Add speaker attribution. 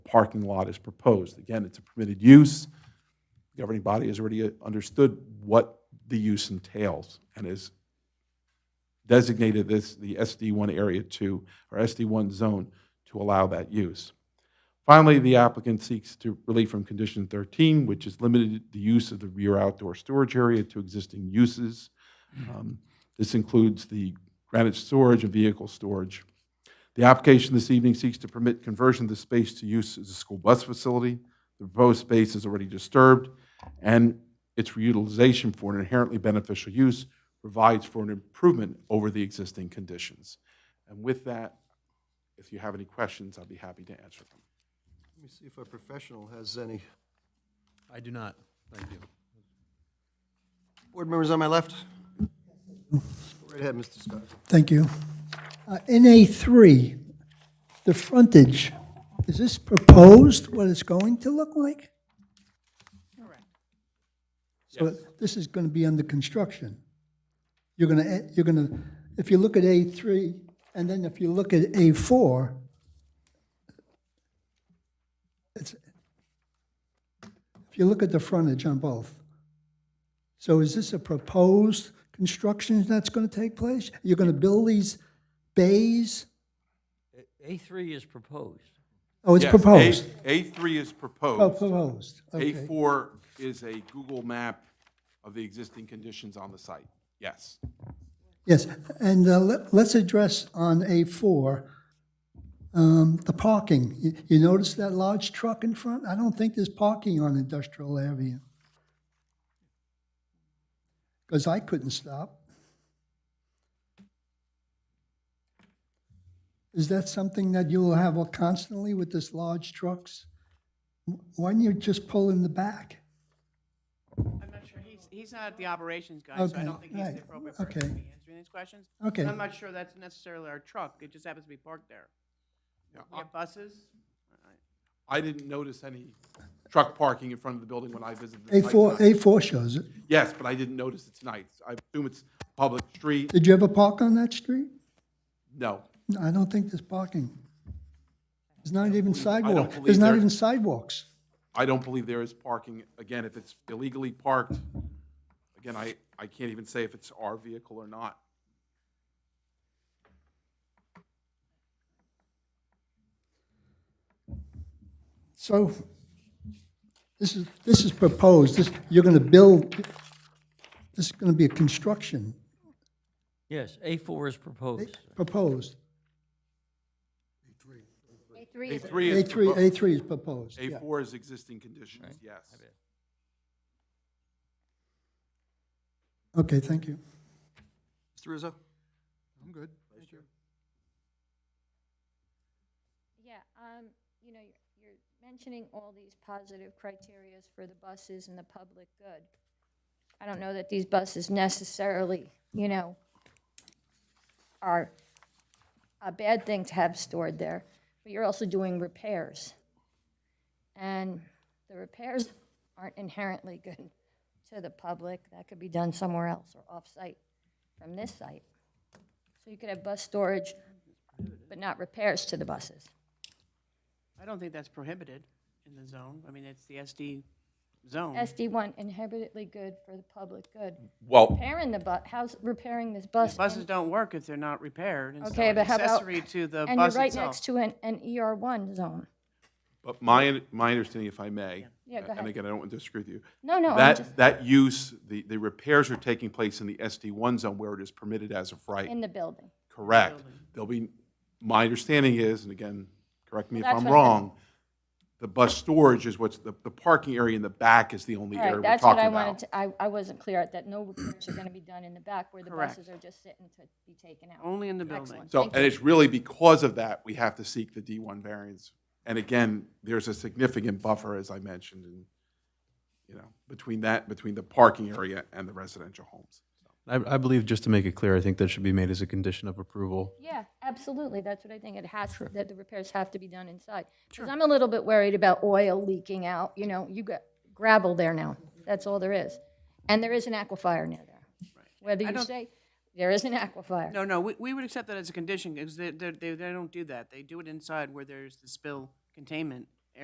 Speaker 1: parking lot is proposed. Again, it's a permitted use. The governing body has already uh, understood what the use entails and has designated this, the SD1 Area 2, or SD1 Zone, to allow that use. Finally, the applicant seeks to relief from condition 13, which is limited the use of the rear outdoor storage area to existing uses. Um, This includes the granite storage and vehicle storage. The application this evening seeks to permit conversion of the space to use as a school bus facility. The proposed space is already disturbed, and its reutilization for an inherently beneficial use provides for an improvement over the existing conditions. And with that, if you have any questions, I'd be happy to answer them.
Speaker 2: Let me see if our professional has any.
Speaker 3: I do not, thank you.
Speaker 2: Board members on my left? Go right ahead, Mr. Scott.
Speaker 4: Thank you. Uh, NA3, the frontage, is this proposed what it's going to look like?
Speaker 5: Correct.
Speaker 4: So this is going to be under construction. You're going to, you're going to, if you look at A3, and then if you look at A4, it's, if you look at the frontage on both. So is this a proposed construction that's going to take place? You're going to build these bays?
Speaker 5: A3 is proposed.
Speaker 4: Oh, it's
Speaker 1: Yes,
Speaker 4: proposed.
Speaker 1: A- A3 is
Speaker 4: Oh,
Speaker 1: proposed.
Speaker 4: proposed, okay.
Speaker 1: A4 is a Google map of the existing conditions on the site. Yes.
Speaker 4: Yes, and uh, let- let's address on A4, um, the parking. You- You notice that large truck in front? I don't think there's parking on Industrial Avenue. Because I couldn't stop. Is that something that you'll have constantly with this large trucks? Why don't you just pull in the back?
Speaker 6: I'm not sure, he's, he's not the operations guy, so I
Speaker 4: Okay,
Speaker 6: don't think he's
Speaker 4: right,
Speaker 6: the appropriate person to
Speaker 4: okay.
Speaker 6: be answering these questions.
Speaker 4: Okay.
Speaker 6: And I'm not sure that's necessarily our truck, it just happens to be parked there. We have buses,
Speaker 1: I didn't notice any truck parking in front of the building when I visited the site.
Speaker 4: A4,
Speaker 1: tonight.
Speaker 4: A4 shows it.
Speaker 1: Yes, but I didn't notice it tonight. I assume it's a public street.
Speaker 4: Did you ever park on that street?
Speaker 1: No.
Speaker 4: No, I don't think there's parking. There's not even sidewalk,
Speaker 1: believe
Speaker 4: there's not
Speaker 1: there-
Speaker 4: even sidewalks.
Speaker 1: I don't believe there is parking. Again, if it's illegally parked, again, I, I can't even say if it's our vehicle or not.
Speaker 4: So this is, this is proposed, this, you're gonna build, this is gonna be a construction,
Speaker 5: Yes, A4 is proposed.
Speaker 4: proposed.
Speaker 1: A3 is
Speaker 4: A three,
Speaker 1: proposed.
Speaker 4: A three is proposed, yeah.
Speaker 1: A4 is existing conditions, yes.
Speaker 4: Okay, thank you.
Speaker 2: Mr. Rizzo?
Speaker 3: I'm good.
Speaker 7: Yeah, um, you know, you're, you're mentioning all these positive criterias for the buses and the public good. I don't know that these buses necessarily, you know, are a bad thing to have stored there, but you're also doing repairs. And the repairs aren't inherently good to the public. That could be done somewhere else or off-site from this site. So you could have bus storage, but not repairs to the buses.
Speaker 6: I don't think that's prohibited in the zone, I mean, it's the SD zone.
Speaker 7: SD1 inherently good for the public good.
Speaker 1: Well,
Speaker 7: Repairing the bu, how's repairing this
Speaker 6: These
Speaker 7: bus?
Speaker 6: Buses
Speaker 7: and-
Speaker 6: don't work if they're not repaired, and so
Speaker 7: Okay,
Speaker 6: an
Speaker 7: but how about-
Speaker 6: accessory to the
Speaker 7: And
Speaker 6: bus
Speaker 7: you're right
Speaker 6: itself.
Speaker 7: next to an, an ER1 zone.
Speaker 1: But my, my understanding, if I may.
Speaker 7: Yeah, go ahead.
Speaker 1: And again, I don't want to disagree with you.
Speaker 7: No, no, I'm just
Speaker 1: That, that use, the, the repairs are taking place in the SD1 zone where it is permitted as of right.
Speaker 7: in the building.
Speaker 1: Correct. There'll be, my understanding is, and again, correct me if
Speaker 7: Well,
Speaker 1: I'm
Speaker 7: that's what I-
Speaker 1: wrong, the bus storage is what's, the, the parking area in the back is the only
Speaker 7: All
Speaker 1: area
Speaker 7: right,
Speaker 1: we're
Speaker 7: that's what
Speaker 1: talking
Speaker 7: I wanted
Speaker 1: about.
Speaker 7: to, I, I wasn't clear at that. No repairs are going to be done in the back where the
Speaker 6: Correct.
Speaker 7: buses are just sitting to be taken out.
Speaker 6: Only in the building.
Speaker 7: Excellent.
Speaker 1: So,
Speaker 7: Thank
Speaker 1: and
Speaker 7: you.
Speaker 1: it's really because of that, we have to seek the D1 variance. And again, there's a significant buffer, as I mentioned, and, you know, between that, between the parking area and the residential homes.
Speaker 3: I, I believe, just to make it clear, I think that should be made as a condition of approval.
Speaker 7: Yeah, absolutely. That's what I think. It has, that the repairs have to be done inside. Because I'm a little bit worried about oil leaking out, you know, you got gravel there now. That's all there is. And there is an aquifer near there. Whether you
Speaker 6: don't-
Speaker 7: say, there is an aquifer.
Speaker 6: No, no, we, we would accept that as a condition, because they, they, they they don't do that. They do it inside where there's the spill containment